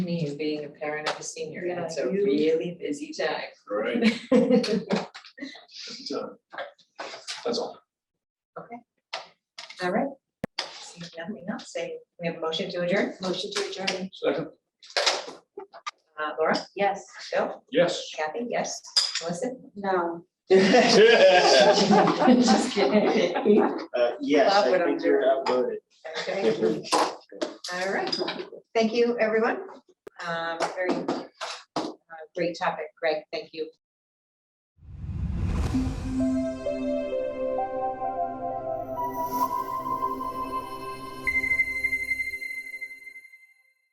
me and being a parent of a senior, Yeah, it's a you- really busy time. Right. So, That's all. All right. Seeing Nothing else, say, we have a motion to adjourn, Motion to adjourn. Second, uh, Laura, Yes. Bill, yes. Kathy, yes, Melissa? No. Just kidding. Uh, Yes, Love I what I'm think you're outvoted. Okay. All right, thank you, everyone. Um, very uh, great topic, Greg, thank you